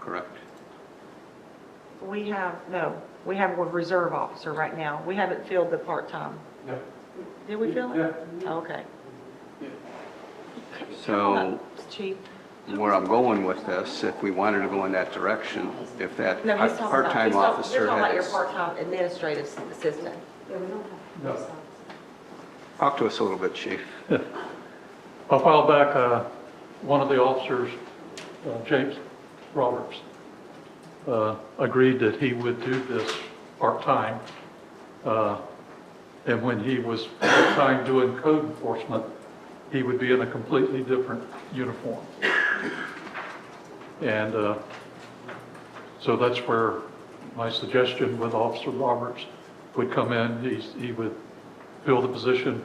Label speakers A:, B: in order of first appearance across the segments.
A: correct?
B: We have, no, we have a reserve officer right now. We haven't filled the part-time.
C: No.
B: Did we fill it? Okay. Hold
A: So
B: up, Chief,
A: where I'm going with this, if we wanted to go in that direction, if that
B: no, he's talking about. he's
A: part-time
B: talking- You're
A: officer
B: talking about your
A: has,
B: part-time administrative assistant.
D: Yeah, we don't
C: No.
D: have.
A: talk to us a little bit, chief.
C: A while back, uh, one of the officers, uh, James Roberts, uh, agreed that he would do this part-time. Uh, And when he was part-time doing code enforcement, he would be in a completely different uniform. And uh, so that's where my suggestion with Officer Roberts would come in. He's- He would fill the position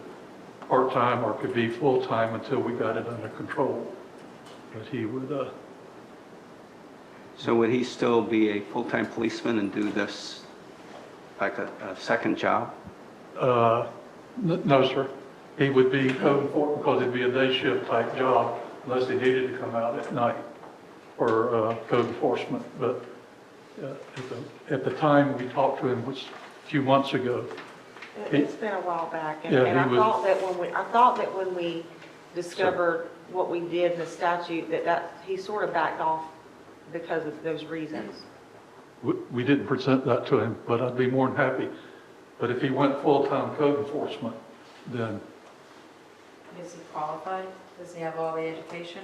C: part-time or could be full-time until we got it under control. But he would, uh,
A: So would he still be a full-time policeman and do this like a, a second job?
C: uh, n- no, sir. He would be code enforcement because it'd be a day shift type job unless he needed to come out at night for uh, code enforcement. But uh, at the, at the time we talked to him, which a few months ago,
B: It- It's been a while back, and
C: Yeah,
B: and I
C: he was-
B: thought that when we, I thought that when we discovered what we did in the statute, that that, he sort of backed off because of those reasons.
C: we- we didn't present that to him, but I'd be more than happy. But if he went full-time code enforcement, then
D: Is he qualified? Does he have all the education?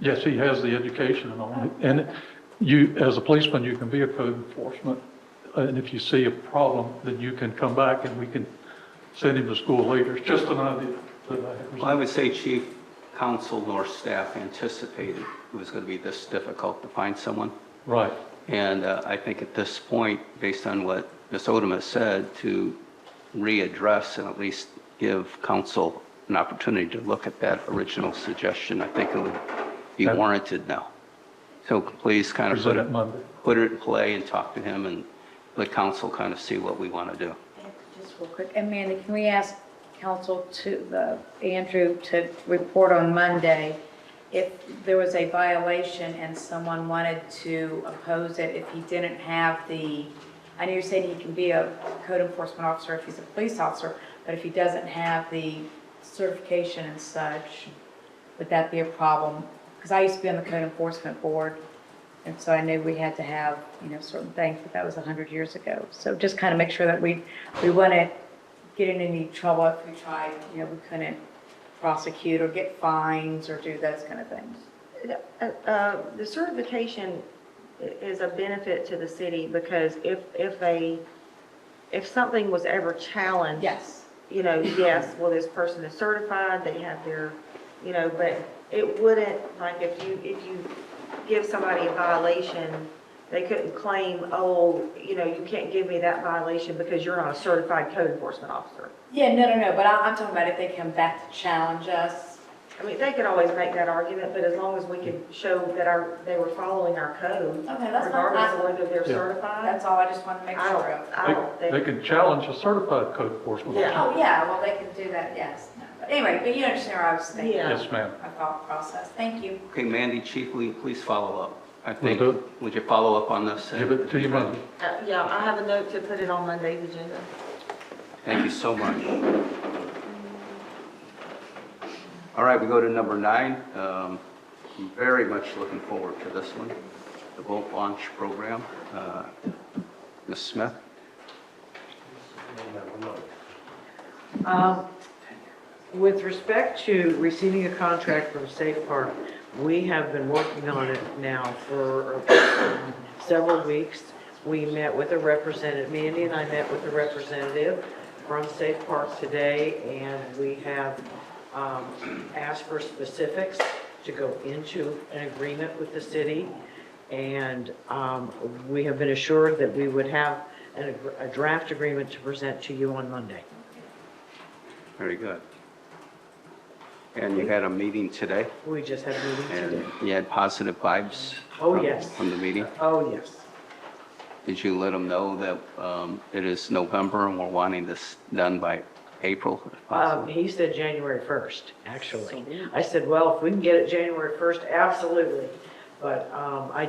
C: Yes, he has the education and all, and you, as a policeman, you can be a code enforcement, and if you see a problem, then you can come back and we can send him to school later, it's just an idea that I have.
A: Well, I would say chief, council nor staff anticipated it was going to be this difficult to find someone.
C: Right,
A: And uh, I think at this point, based on what Ms. Odom has said, to readdress and at least give council an opportunity to look at that original suggestion, I think it would be
C: Okay.
A: warranted now. So please kind of put
C: present it
A: it,
C: Monday.
A: put it in play and talk to him and let council kind of see what we want to do.
E: Just real quick, Amanda, can we ask council to, uh, Andrew, to report on Monday if there was a violation and someone wanted to oppose it, if he didn't have the, I know you're saying he can be a code enforcement officer if he's a police officer, but if he doesn't have the certification and such, would that be a problem? Because I used to be on the code enforcement board, and so I knew we had to have, you know, certain things, but that was 100 years ago. So just kind of make sure that we, we wouldn't get in any trouble if we tried, you know, we couldn't prosecute or get fines or do those kind of things.
B: Uh, uh, The certification i- is a benefit to the city because if, if a, if something was ever challenged.
E: Yes.
B: You know, yes, well, this person is certified, they have their, you know, but it wouldn't, like, if you, if you give somebody a violation, they couldn't claim, oh, you know, you can't give me that violation because you're not a certified code enforcement officer.
E: Yeah, no, no, no, but I- I'm talking about if they come back to challenge us.
B: I mean, they could always make that argument, but as long as we could show that our, they were following our code.
E: Okay, that's fine.
B: Regardless of whether they're
C: Yeah.
B: certified.
E: That's all, I just want to make
B: I
E: sure of.
B: don't, I don't
C: They- They
B: think,
C: can challenge a certified code enforcement
B: Yeah.
C: officer.
E: Oh, yeah, well, they can do that, yes. No, But anyway, but you understand where I was thinking,
B: Yeah.
C: Yes, ma'am.
E: my thought process. Thank you.
A: Okay, Mandy, chief, will you please follow up? I think,
C: do.
A: would you follow up on this?
C: Give it to you Monday.
B: uh, yeah, I have a note to put it on Monday's agenda.
A: Thank you so much. All right, we go to number nine. Um, I'm Very much looking forward to this one, the boat launch program. Uh, Ms. Smith?
F: Um, With respect to receiving a contract from Safe Park, we have been working on it now for several weeks. We met with a representative, Mandy and I met with a representative from Safe Park today, and we have um, asked for specifics to go into an agreement with the city. And um, we have been assured that we would have an ag- a draft agreement to present to you on Monday.
A: Very good. And you had a meeting today,
F: We just had a meeting
A: and
F: today.
A: you had positive vibes?
F: Oh,
A: from-
F: yes.
A: From the meeting?
F: Oh, yes.
A: Did you let them know that um, it is November and we're wanting this done by April? if
F: Um,
A: possible?
F: he said January 1st, actually. I said, well, if we can get it January 1st, absolutely. But, um, I